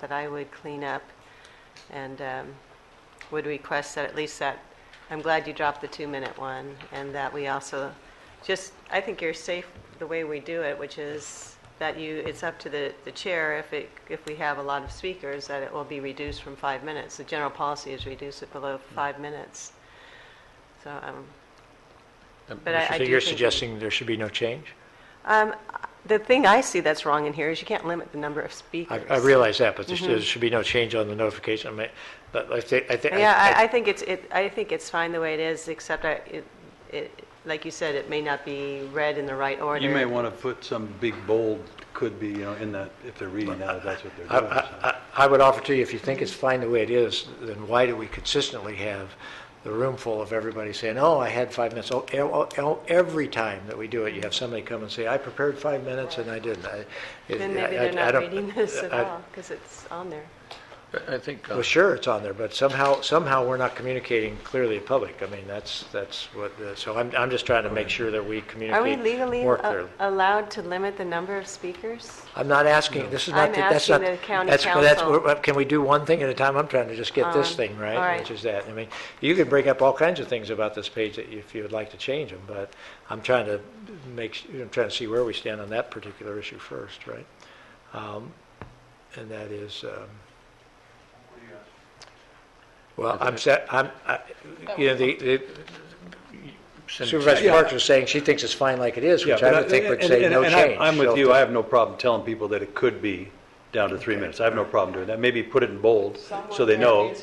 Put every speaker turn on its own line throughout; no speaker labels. that I would clean up and um, would request that at least that, I'm glad you dropped the two-minute one, and that we also, just, I think you're safe the way we do it, which is that you, it's up to the, the chair, if it, if we have a lot of speakers, that it will be reduced from five minutes. The general policy is reduce it below five minutes. So, um, But I- I
So
do
You're
think we-
suggesting there should be no change?
um, the thing I see that's wrong in here is you can't limit the number of
I,
speakers.
I realize that, but there
Mm-hmm.
should- there should be no change on the notification, I mean, but I think, I think.
Yeah, I, I think it's, it, I think it's fine the way it is, except I, it, it, like you said, it may not be read in the right order.
You may want to put some big bold, could be, you know, in that, if they're reading that, if that's what they're
I,
doing. so.
I, I- I would offer to you, if you think it's fine the way it is, then why do we consistently have the room full of everybody saying, oh, I had five minutes? Oh, e- oh, oh, Every time that we do it, you have somebody come and say, I prepared five minutes and I didn't. I- it-
Then maybe
I-
they're
I
not
don't-
reading this at
I-
all, because it's on there.
I- I think, uh,
Well, sure, it's on there, but somehow, somehow we're not communicating clearly to public. I mean, that's, that's what, the- so I'm, I'm just trying to make sure that we
Are we
communicate
legally
more
a-
clearly.
allowed to limit the number of speakers?
I'm not asking, this is
I'm
not, the- that's not.
asking the county
that's- that's-
council.
we're- Can we do one thing at a time? I'm trying to just get this
Um,
thing
all
right,
right.
which is that. I mean, you can bring up all kinds of things about this page that you- if you would like to change them, but I'm trying to make, s- I'm trying to see where we stand on that particular issue first, right? Um, And that is, um, well, I'm, sa- I'm, I- you know, the, the-
send a
Supervisor
check.
Parks was saying she thinks it's fine like it is,
Yeah,
which I
but
would think would
and-
say
and-
no
and I'm-
change.
I'm
So
with
if
you, I have no problem telling people that it could be down to three minutes. I have no problem doing that. Maybe put it in bold, so they know.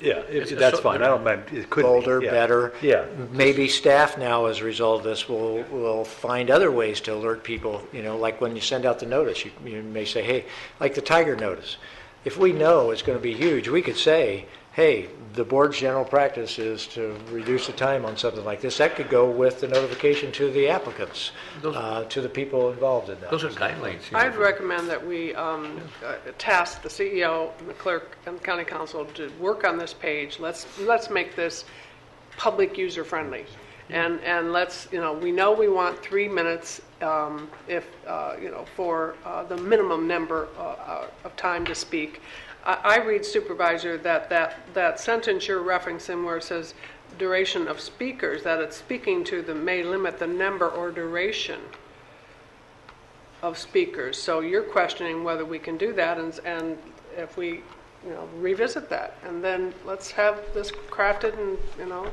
Yeah, if-
It's-
that's
so-
fine, I don't mind, it could be.
Bolder,
yeah.
better.
Yeah.
Maybe staff now, as a result of this, will, will find other ways to alert people, you know, like when you send out the notice, you, you may say, hey, like the tiger notice. If we know it's going to be huge, we could say, hey, the board's general practice is to reduce the time on something like this. That could go with the notification to the applicants,
Those-
uh, to the people involved in that.
Those are guidelines. you know,
I'd
for-
recommend that we um, uh, task the CEO and the clerk and the county council to work on this page. Let's, let's make this public user-friendly. And, and let's, you know, we know we want three minutes um, if, uh, you know, for uh, the minimum number uh, uh, of time to speak. I, I read supervisor that, that, that sentence you're referencing where it says duration of speakers, that it's speaking to the, may limit the number or duration of speakers. So you're questioning whether we can do that and, and if we, you know, revisit that. And then let's have this crafted and, you know,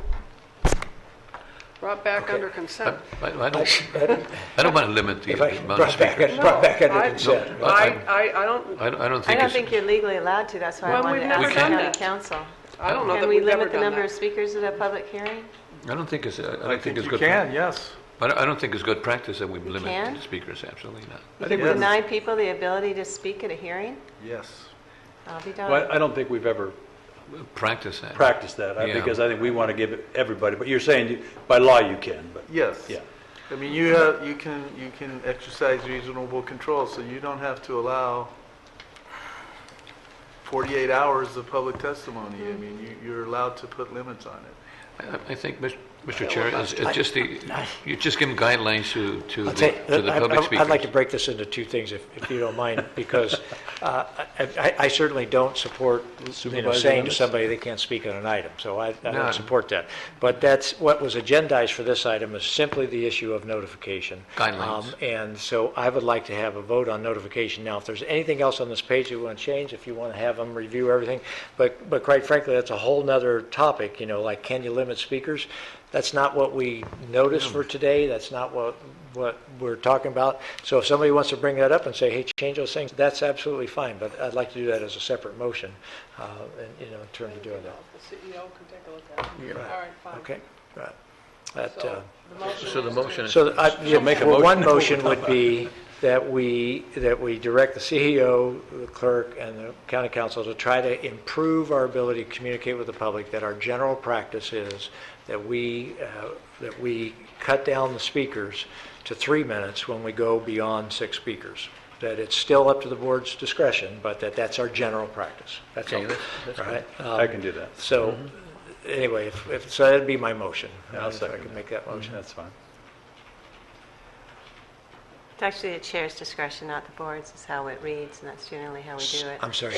brought back under consent.
I I don't, I don't want to limit the
If I
amount of
brought back,
speakers.
brought back under
I-
consent.
No,
I,
I-
I, I don't,
I don't I don't
I
think
don't
it's...
think you're legally allowed to, that's why I
Well,
wanted
we've
to
never
ask the
done
county
that.
council.
I don't know
Can
that
we
we've ever
limit the
done
number of
that.
speakers at a public hearing?
I don't think it's, I
I
don't think
think
it's
you
good...
can, yes.
I don't- I don't think it's good practice that we limit
can?
the speakers, absolutely not.
I think we're-
Deny people the ability to speak at a hearing?
Yes.
I'll be
Well,
done.
I don't think we've ever
Practice that.
practiced that, I-
Yeah.
because I think we want to give it everybody, but you're saying you- by law you can, but.
Yes.
Yeah.
I mean, you have, you can, you can exercise reasonable control, so you don't have to allow 48 hours of public testimony. I mean, you, you're allowed to put limits on it.
I- I think, Mis- Mr. Chair, it's it's just the, you just give them guidelines to to
I'll
the
tell you,
to the
I- I-
public
I'd like to
speakers.
break this into two things, if if you don't mind, because uh, I- I I certainly don't support, you know,
Supervisor
saying to
Leonard?
somebody they can't speak on an item, so I I
No.
don't support that. But that's, what was agendized for this item is simply the issue of notification.
Guidelines.
Um, And so I would like to have a vote on notification. Now, if there's anything else on this page you want to change, if you want to have them review everything, but, but quite frankly, that's a whole nother topic, you know, like, can you limit speakers? That's not what we noticed for today, that's not what, what we're talking about. So if somebody wants to bring that up and say, hey, change those things, that's absolutely fine, but I'd like to do that as a separate motion, uh, and, you know, in terms of doing that.
The CEO can take a look at it. All right, fine.
Okay, right. That,
So
uh,
the motion
So the
is-
motion is...
so I, yeah,
make a
well, one
motion.
motion would be that we, that we direct the CEO, the clerk, and the county council to try to improve our ability to communicate with the public, that our general practice is that we, uh, that we cut down the speakers to three minutes when we go beyond six speakers. That it's still up to the board's discretion, but that that's our general practice. That's all.
Okay, that's- that's
All right?
I
Um,
can do that,
So, anyway, if, if, so that'd be my motion.
Yeah, I'll
If I
second
could
that.
make that motion.
that's fine.
It's actually the chair's discretion, not the board's, is how it reads, and that's generally how we do it.
I'm sorry,